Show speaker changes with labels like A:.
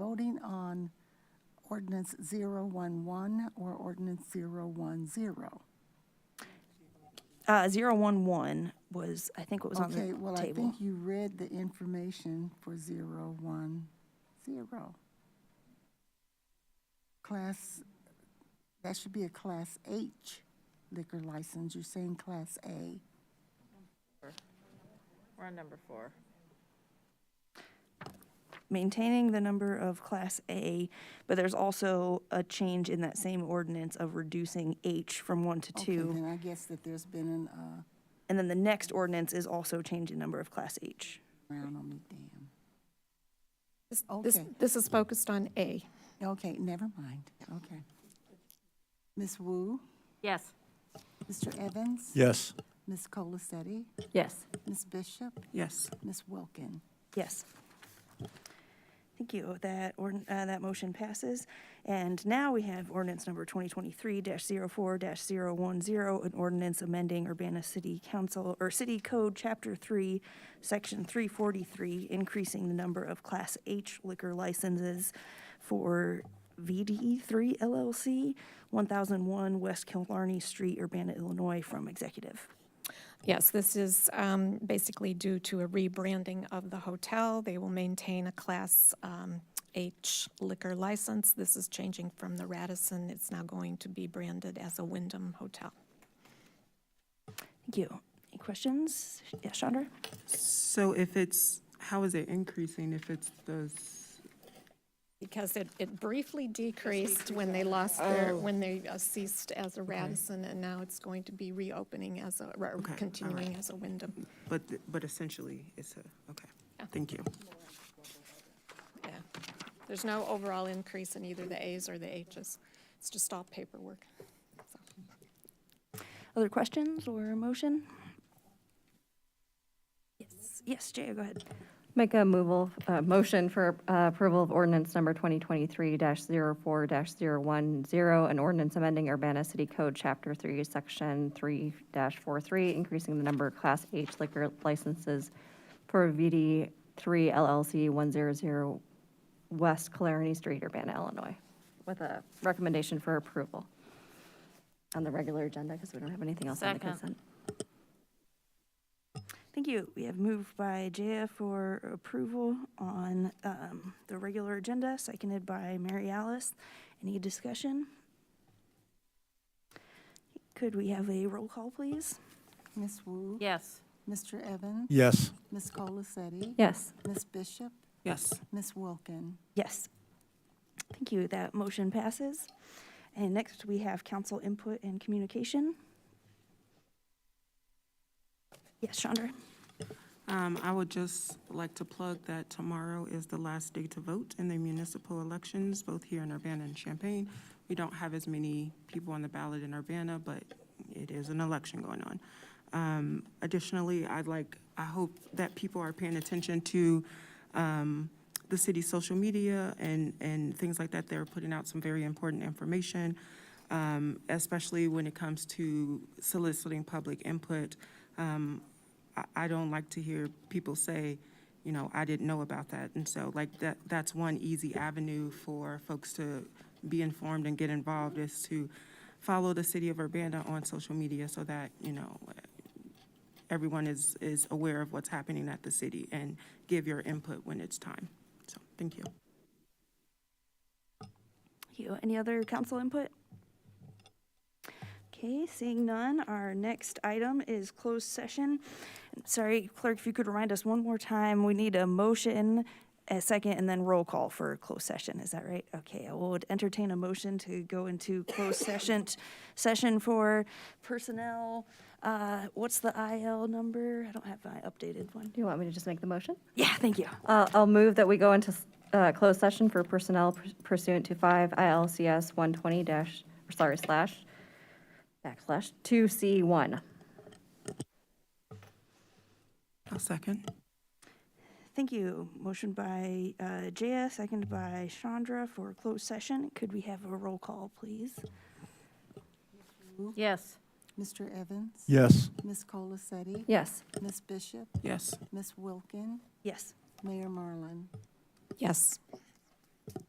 A: voting on ordinance 011 or ordinance 010.
B: Uh, 011 was, I think, what was on the
A: Okay, well, I
B: table.
A: think you read the information for 010. Class, that should be a Class H liquor license. You're saying Class A.
C: We're on number four.
B: Maintaining the number of Class A, but there's also a change in that same ordinance of reducing H from 1 to
A: Okay,
B: 2.
A: then I guess that there's been an, uh,
B: And then the next ordinance is also changing number of Class H.
A: round on me, damn.
D: This- This,
A: Okay.
D: this is focused on A.
A: Okay, never mind. Okay. Ms. Wu,
C: Yes.
A: Mr. Evans?
E: Yes.
A: Ms. Colacetti?
C: Yes.
A: Ms. Bishop?
F: Yes.
A: Ms. Wilkin?
B: Yes. Thank you. That, ordn- uh, that motion passes. And now we have ordinance number 2023-04-010, an ordinance amending Urbana City Council, or City Code, Chapter 3, Section 343, increasing the number of Class H liquor licenses for E VDE3 LLC, 1001 West Killarney Street, Urbana, Illinois, from executive.
D: Yes, this is um, basically due to a rebranding of the hotel. They will maintain a Class um, H liquor license. This is changing from the Radisson. It's now going to be branded as a Wyndham Hotel.
B: Thank you. Any questions? Yes, Chandra?
F: So if it's, how is it increasing if it's those,
D: Because it, it briefly decreased when they lost their, when they uh, ceased as a Radisson, and now it's going to be reopening as a, or
F: all
D: continuing as a Wyndham.
F: but, th- but essentially it's a, okay, thank you.
D: Yeah. There's no overall increase in either the As or the Hs. It's just all paperwork. So,
B: Other questions or a motion? Yes, yes, Jaya, go ahead.
G: Make a moval, uh, motion for uh, approval of ordinance number 2023-04-010, an ordinance amending Urbana City Code, Chapter 3, Section 3-43, increasing the number of Class H liquor licenses for VD3 LLC 100 West Clarity Street, Urbana, Illinois, with a recommendation for approval on the regular agenda because we don't have anything else on the
C: Second.
G: consent.
B: Thank you. We have moved by Jaya for approval on um, the regular agenda, seconded by Mary Alice. Any discussion? Could we have a roll call, please?
A: Ms. Wu?
C: Yes.
A: Mr. Evans?
E: Yes.
A: Ms. Colacetti?
G: Yes.
A: Ms. Bishop?
F: Yes.
A: Ms. Wilkin?
B: Yes. Thank you. That motion passes. And next, we have council input and communication. Yes, Chandra?
F: Um, I would just like to plug that tomorrow is the last day to vote in the municipal elections, both here in Urbana and Champaign. We don't have as many people on the ballot in Urbana, but it is an election going on. Um, additionally, I'd like, I hope that people are paying attention to, um, the city's social media and, and things like that. They're putting out some very important information, um, especially when it comes to soliciting public input. Um, I, I don't like to hear people say, you know, I didn't know about that. And so like that, that's one easy avenue for folks to be informed and get involved is to follow the city of Urbana on social media so that, you know, everyone is, is aware of what's happening at the city and give your input when it's time. So, thank you.
B: Thank you. Any other council input? Okay, seeing none, our next item is closed session. Sorry, clerk, if you could remind us one more time, we need a motion, a second, and then roll call for closed session, is that right? Okay, I would entertain a motion to go into closed session, session for personnel, uh, what's the IL number? I don't have my updated one.
G: Do you want me to just make the motion?
B: Yeah, thank you.
G: Uh, I'll move that we go into uh, closed session for personnel pursuant to 5 ILCS 120 dash, sorry, slash, backslash, 2C1.
F: A second.
B: Thank you. Motion by uh, Jaya, second by Chandra for closed session. Could we have a roll call, please?
C: Yes.
A: Mr. Evans?
E: Yes.
A: Ms. Colacetti?
G: Yes.
A: Ms. Bishop?
F: Yes.
A: Ms. Wilkin?
B: Yes.
A: Mayor Marlin?
D: Yes.